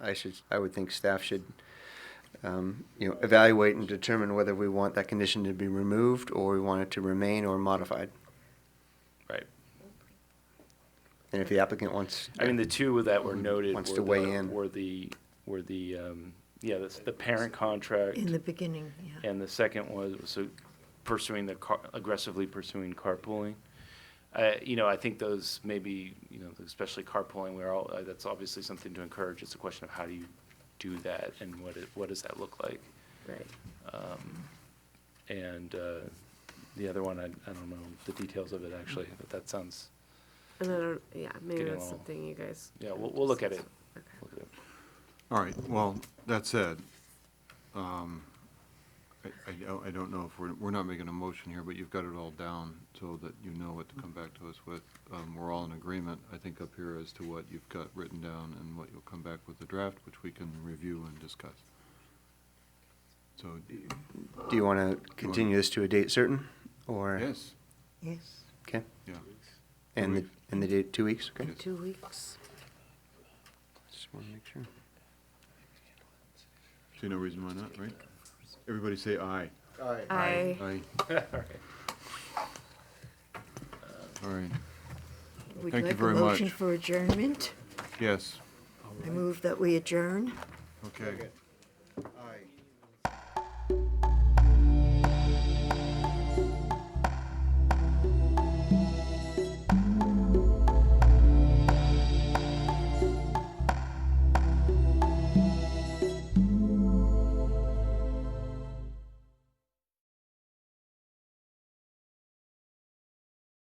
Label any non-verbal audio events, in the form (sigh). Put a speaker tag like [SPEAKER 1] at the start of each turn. [SPEAKER 1] I should, I would think staff should, um, you know, evaluate and determine whether we want that condition to be removed or we want it to remain or modified.
[SPEAKER 2] Right.
[SPEAKER 1] And if the applicant wants.
[SPEAKER 2] I mean, the two that were noted
[SPEAKER 1] Wants
[SPEAKER 2] were
[SPEAKER 1] to weigh
[SPEAKER 2] the-
[SPEAKER 1] in.
[SPEAKER 2] Were the, were the, um, yeah, that's the parent contract.
[SPEAKER 3] In the beginning, yeah.
[SPEAKER 2] And the second was, was pursuing the car, aggressively pursuing carpooling. Uh, you know, I think those maybe, you know, especially carpooling, we're all, uh, that's obviously something to encourage. It's a question of how do you do that and what, it- what does that look like?
[SPEAKER 3] Right.
[SPEAKER 2] And, uh, the other one, I, I don't know the details of it actually, but that sounds,
[SPEAKER 4] And I don't, yeah, maybe
[SPEAKER 2] Getting
[SPEAKER 4] that's
[SPEAKER 2] all-
[SPEAKER 4] something you guys.
[SPEAKER 2] yeah, we'll, we'll look at it.
[SPEAKER 4] Okay.
[SPEAKER 2] Look at it. (laughs)
[SPEAKER 5] All right, well, that said, um, I, I don't, I don't know if we're, we're not making a motion here, but you've got it all down so that you know what to come back to us with. Um, we're all in agreement, I think, up here as to what you've got written down and what you'll come back with the draft, which we can review and discuss. So,
[SPEAKER 1] Do you want to continue this to a date certain or?
[SPEAKER 5] yes,
[SPEAKER 3] Yes,
[SPEAKER 1] Okay.
[SPEAKER 5] yeah.
[SPEAKER 1] And the,
[SPEAKER 5] weeks.
[SPEAKER 1] and the date, two weeks? Okay.
[SPEAKER 5] Yes.
[SPEAKER 3] two weeks.
[SPEAKER 1] Just want to make sure.
[SPEAKER 5] See no reason why not, right? Everybody say aye.
[SPEAKER 4] I,
[SPEAKER 5] Aye. All right,
[SPEAKER 3] Would
[SPEAKER 5] Thank you
[SPEAKER 3] like a
[SPEAKER 5] very much.
[SPEAKER 3] motion for adjournment?
[SPEAKER 5] yes,
[SPEAKER 3] I move that we adjourn.
[SPEAKER 5] okay.